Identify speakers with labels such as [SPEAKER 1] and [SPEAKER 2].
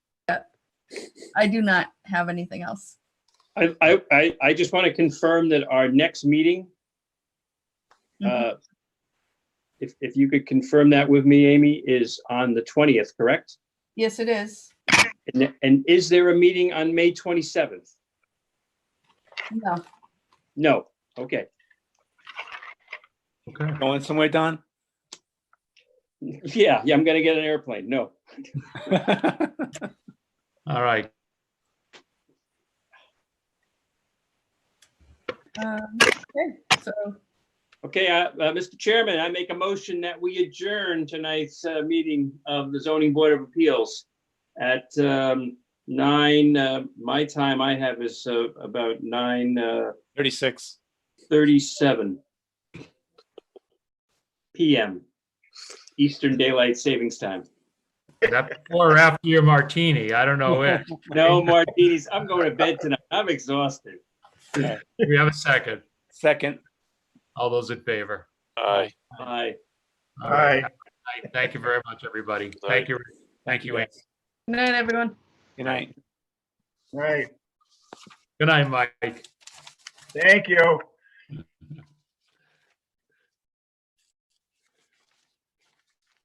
[SPEAKER 1] I do not have anything else.
[SPEAKER 2] I, I, I, I just want to confirm that our next meeting,
[SPEAKER 1] Mhm.
[SPEAKER 2] uh, if, if you could confirm that with me, Amy, is on the 20th, correct?
[SPEAKER 1] Yes, it is.
[SPEAKER 2] And, and is there a meeting on May 27th?
[SPEAKER 1] No,
[SPEAKER 2] No, okay.
[SPEAKER 3] Okay.
[SPEAKER 4] Going somewhere, Don?
[SPEAKER 2] Yeah, yeah, I'm gonna get an airplane, no.
[SPEAKER 3] All right.
[SPEAKER 1] um, okay, so,
[SPEAKER 2] Okay, uh, uh, Mr. Chairman, I make a motion that we adjourn tonight's uh, meeting of the zoning board of appeals at um, nine, uh, my time I have is uh, about uh, 9:37
[SPEAKER 4] Thirty-six.
[SPEAKER 2] PM, Eastern Daylight Savings Time.
[SPEAKER 3] That or after your martini, I don't know which.
[SPEAKER 2] No martinis, I'm going to bed tonight, I'm exhausted.
[SPEAKER 3] Do We have a second.
[SPEAKER 4] Second.
[SPEAKER 3] All those in favor.
[SPEAKER 5] Aye.
[SPEAKER 2] Bye.
[SPEAKER 3] All right. Thank you very much, everybody. Thank you. Thank you. Ann.
[SPEAKER 1] good night, everyone.
[SPEAKER 4] Good night.
[SPEAKER 5] Right,
[SPEAKER 3] Good night, Mike.
[SPEAKER 5] thank you.